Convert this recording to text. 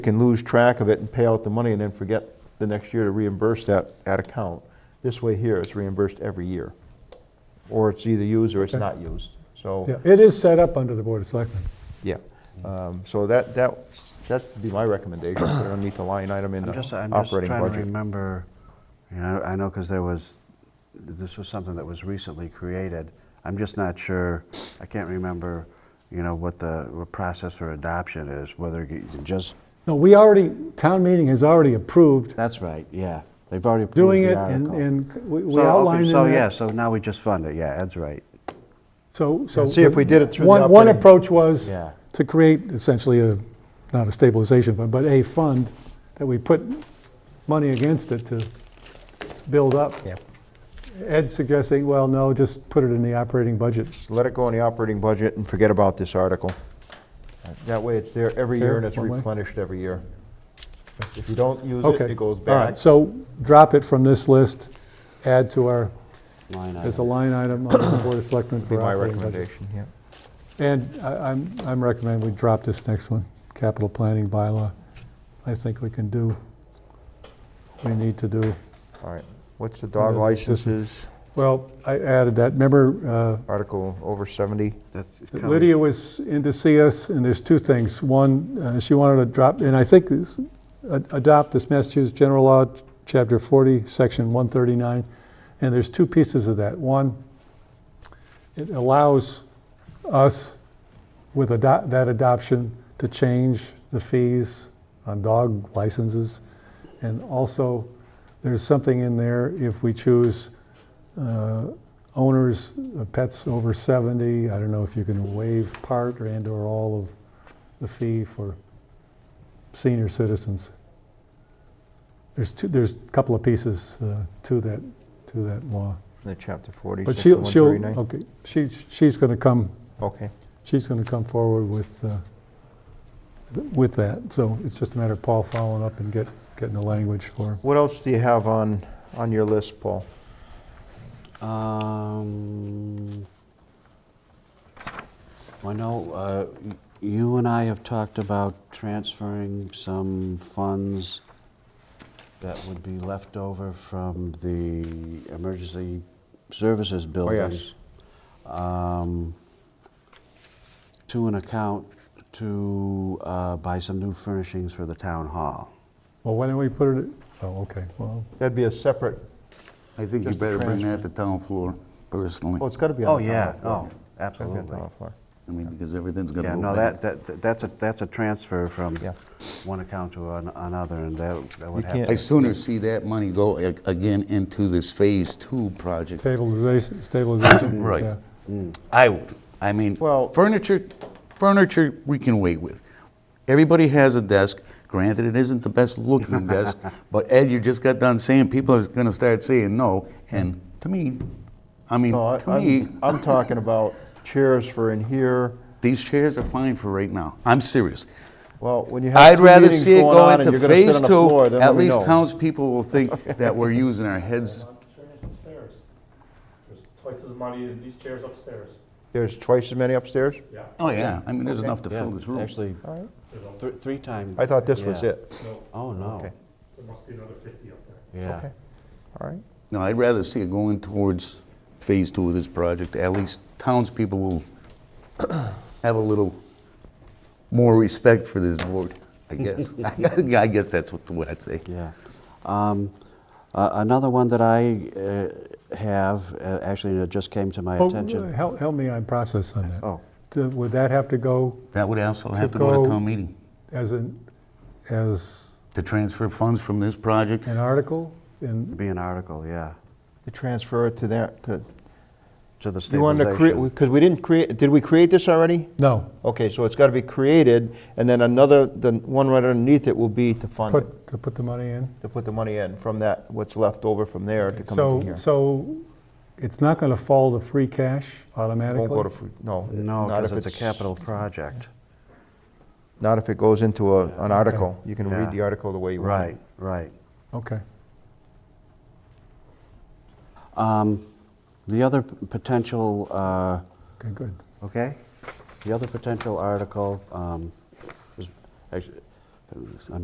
can lose track of it and pay out the money and then forget the next year to reimburse that, that account. This way here, it's reimbursed every year. Or it's either used or it's Okay. not used. Yeah, So, it is set up under the Board of Selectmen. yeah. Um, So that, that, that'd be my recommendation, put it underneath the line item in the I'm just, I'm just operating trying to budget. remember, you know, I know because there was, this was something that was recently created. I'm just not sure, I can't remember, you know, what the what process for adoption is, whether you can just, No, we already, town meeting has already approved that's right, yeah. They've already approved doing the it, and, article. and we- So, we okay, outlined in So, yeah, that. so now we just fund it, yeah, Ed's right. So, so. See if we did it through the One, one operating- approach was Yeah. to create essentially a, not a stabilization fund, but a fund that we put money against it to build up. Yeah. Ed suggesting, well, no, just put it in the operating budget. So Let it go in the operating budget and forget about this article. That way, it's there every year and it's Fair, one way. replenished every year. If you don't use it, Okay. it goes All right, back. so drop it from this list, add to our, Line as a item. line item on the Board of Selectmen Be for my operating budget. recommendation, yeah. And I- I'm, I'm recommending we drop this next one, capital planning bylaw. I think we can do, we need to do. All right. What's the dog Yeah, it's just- licenses? Well, I added that, remember, Article over 70? That's uh, coming. Lydia was in to see us, and there's two things. One, uh, she wanted to drop, and I think this, a- adopt this Massachusetts General Law, Chapter 40, Section 139, and there's two pieces of that. One, it allows us with ado- that adoption to change the fees on dog licenses. And also, there's something in there if we choose uh, owners of pets over 70, I don't know if you can waive part or and or all of the fee for senior citizens. There's two, there's a couple of pieces uh, to that, to that law. The chapter 40, But section she'll, she'll, oh. 139? okay, she, she's gonna come, Okay. she's gonna come forward with, uh, with that. So it's just a matter of Paul following up and get, getting the language for. What else do you have on, on your list, Paul? Um, I know uh, y- you and I have talked about transferring some funds that would be left over from the emergency services Oh, building. yes. um, To an account to uh, buy some new furnishings for the town hall. Well, why don't we put it, oh, okay, well, That'd be a separate, I think you Just a better bring transfer. that to town floor personally. oh, it's got to be Oh, on the yeah, town oh, floor. It's gotta be on the absolutely. town floor. I mean, because everything's gonna Yeah, go no, back. that, that, that's a, that's a transfer from Yeah. one account to an- another, and that, that would You happen. can't- I sooner see that money go a- again into this phase two project. stabilization, stabilization. Right. yeah. I would. I mean, Well- furniture, furniture we can wait with. Everybody has a desk. Granted, it isn't the best looking desk, but Ed, you just got done saying people are gonna start saying no, and to me, I mean, No, I- to me, I'm, I'm talking about chairs for in here. these chairs are fine for right now. I'm serious. Well, when you have I'd two rather meetings see it going go on and into you're going to sit phase on the floor, two. then At let me least know. townspeople will think that we're using our heads. upstairs. There's twice as many as these chairs upstairs. There's twice as many upstairs? Yeah. Oh, yeah, I mean, there's enough to Yeah, fill this room. Actually, All right. th- three times. I thought this was it. No, Oh, no. Okay. there must be another fifty up there. Yeah. Okay. All right. No, I'd rather see it going towards phase two of this project. At least townspeople will have a little more respect for this board, I guess. I guess that's what what I'd say. Yeah. Um, a- Another one that I uh, have, uh, actually, it just came to my Oh, attention. Help, help me on process on that. Oh, Do- Would that have to go That would also To have to go go- to town meeting, as an, as to transfer funds from this project. an article it'd in, be an article, yeah, To transfer it to that, to, to the you wanted to create, stabilization. because we didn't create, did we create this already? no, Okay, so it's got to be created, and then another, the one right underneath it will be to fund it, put, to put the money in? to put the money in from that, what's left over from there to come into So, here. so it's not going to fall to free cash automatically? Won't go to, free- no. No, not because if it's a capital project. Not if it goes into a, an article. You can Yeah. read the article the way you want. it. Right, right. Okay. Um, The other p- potential uh, Okay, good. Okay. The other potential article um, was, actu- I